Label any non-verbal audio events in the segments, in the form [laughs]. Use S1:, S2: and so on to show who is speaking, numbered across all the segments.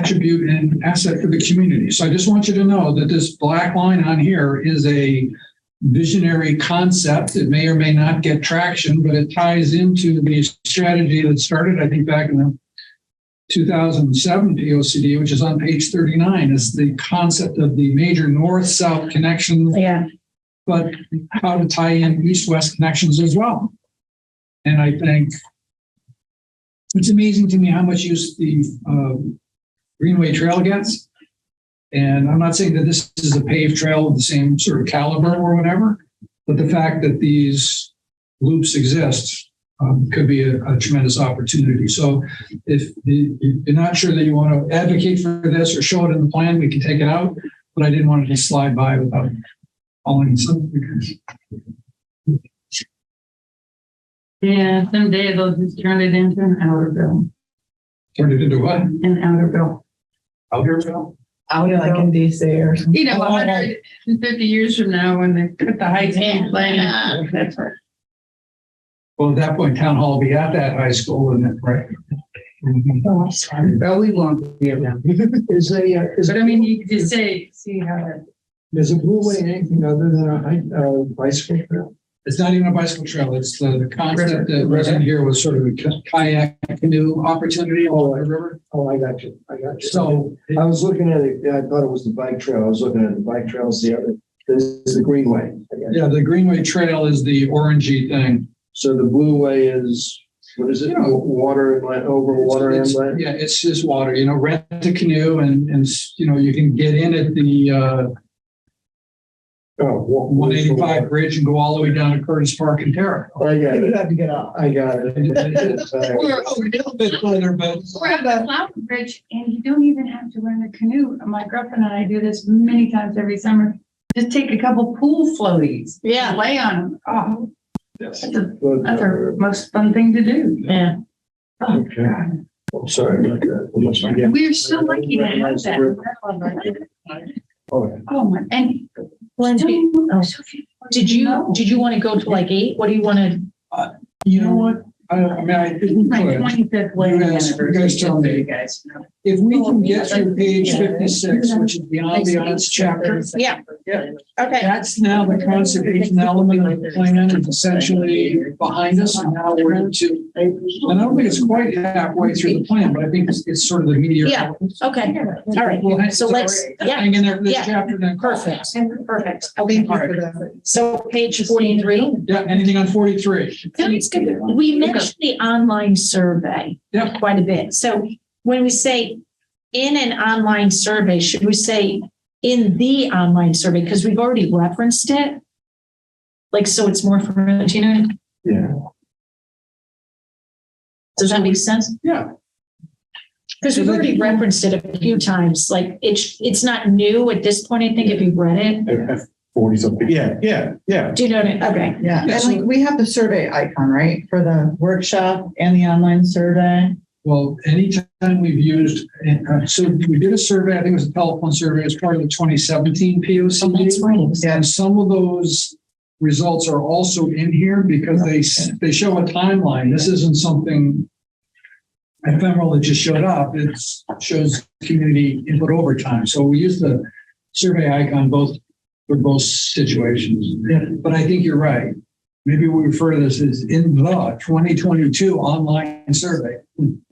S1: contribute an asset for the community. So I just want you to know that this black line on here is a visionary concept. It may or may not get traction, but it ties into the strategy that started, I think, back in the 2007 POCD, which is on page 39, is the concept of the major north-south connections
S2: Yeah,
S1: but how to tie in east-west connections as well. And I think it's amazing to me how much use the um, Greenway Trail gets. And I'm not saying that this is a paved trail of the same sort of caliber or whatever, but the fact that these loops exist um, could be a a tremendous opportunity. So if you- you're not sure that you want to advocate for this or show it in the plan, we can take it out. But I didn't want it to slide by without calling something.
S3: Yeah, someday they'll just turn it into an outer bill,
S1: Turned it into what?
S3: an outer bill.
S1: Out here, Bill?
S4: out like in DC or something.
S3: You know, hundred and fifty years from now, when they put the heights in, plan, that's right.
S1: Well, at that point, town hall will be at that high school, wouldn't it, right?
S5: Belly won't be around. Is a, uh, is
S3: Mm-hmm. But I mean, you could just say, see how that.
S5: is a blue way anything other than a hike, uh, bicycle trail?
S1: It's not even a bicycle trail. It's the, the concept that was in here was sort of a ki- kayak canoe opportunity along the river.
S5: Oh, I got you. I got you.
S1: So
S5: I was looking at it, yeah, I thought it was the bike trail. I was looking at the bike trails the other, this is the greenway. I got you.
S1: yeah, the Greenway Trail is the orangey thing.
S5: So the blue way is, what is it?
S1: Yeah.
S5: Water inlet, over water
S1: It's-
S5: inlet?
S1: Yeah, it's just water, you know, rent a canoe and, and, you know, you can get in at the, uh,
S5: Oh, wa-
S1: one eighty-five bridge and go all the way down to Curtis Park and Terra.
S5: I got
S4: You
S5: it.
S4: have to get off.
S5: I got [laughs] it.
S1: We're a little bit further, but
S3: We're at the flower bridge and you don't even have to rent a canoe. My girlfriend and I do this many times every summer. Just take a couple pool floaties.
S2: Yeah.
S3: Lay on them. Oh,
S1: yes.
S3: that's
S5: uh,
S3: the, that's our most fun thing to do.
S2: yeah.
S3: Oh,
S5: Okay.
S3: God.
S5: I'm sorry about that. I'm sorry. Yeah.
S3: We're so lucky to have that.
S5: Oh, yeah.
S3: Oh, my, and.
S2: Glenn, did- oh. did you,
S3: No.
S2: did you want to go to like eight? What do you want to?
S1: You know what? I, I mean, I didn't
S3: My
S1: put it.
S3: twenty-fifth
S1: You
S3: wedding
S1: guys- you
S3: anniversary.
S1: guys tell me.
S3: You guys know.
S1: If we can get through page
S2: Yeah.
S1: fifty-six, which is the ambiance chapter,
S2: Yeah.
S1: Yeah.
S2: Okay.
S1: that's now the conservation element of the plan is essentially behind us and now we're into. And I don't think it's quite halfway through the plan, but I think it's, it's sort of the meteor.
S2: Yeah. Okay, all right,
S1: Well,
S2: so let's, yeah,
S1: Hang in there for this
S2: Yeah.
S1: chapter then.
S2: perfect, perfect.
S4: Thank you
S2: Okay,
S4: for that.
S2: so page forty-three.
S1: Yeah, anything on forty-three?
S2: That's good. We mentioned the online survey.
S1: Yeah.
S2: Quite a bit. So when we say in an online survey, should we say in the online survey? Because we've already referenced it. Like, so it's more familiar, do you know?
S5: Yeah.
S2: Does that make sense?
S1: Yeah.
S2: Because we've already referenced it a few times, like it's, it's not new at this point, I think, if you read it.
S5: Forty something. Yeah, yeah, yeah.
S2: Do you know what I, okay,
S4: Yeah,
S1: Yeah,
S4: and
S1: so-
S4: like we have the survey icon, right, for the workshop and the online survey?
S1: Well, anytime we've used, uh, so we did a survey, I think it was a telephone survey as part of the twenty seventeen P O C D.
S2: Oh, that's right. it was-
S1: And some of those results are also in here because they, s- they show a timeline. This isn't something ephemeral that just showed up. It shows community input over time. So we use the survey icon both, for both situations. But I think you're right. Maybe we refer to this as in the twenty twenty-two online survey.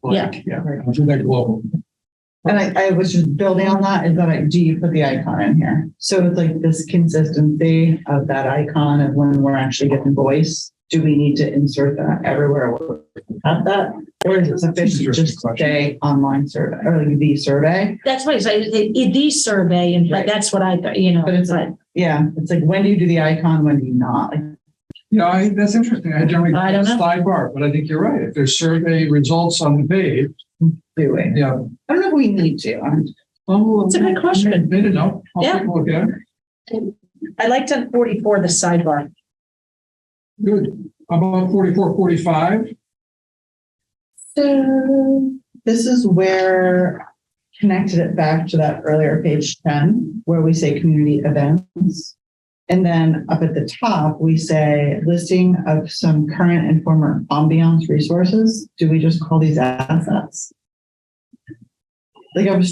S1: Like, Yeah, I'll do that global.
S4: And I, I was just building on that, is that I, do you put the icon in here? So it's like this consistency of that icon of when we're actually getting voice. Do we need to insert that everywhere we have that? Or is it sufficient to just say online survey or like the survey?
S2: That's why I say, it- it- the survey, and
S4: Right.
S2: that's what I, thought, you know.
S4: But it's like, yeah, it's like, when do you do the icon, when do you not? Like,
S1: Yeah, I, that's interesting. I generally.
S2: I don't know.
S1: Sidebar, but I think you're right. If there's survey results on the page,
S4: do we?
S1: yeah,
S4: I don't know if we need to. I'm-
S1: It's
S2: It's a good question.
S1: Made a note. I'll take a Look at it.
S2: I liked on forty-four, the sidebar.
S1: Good. How About forty-four, forty-five.
S4: So this is where connected it back to that earlier page ten, where we say community events. And then up at the top, we say listing of some current and former ambiance resources. Do we just call these assets? Like I was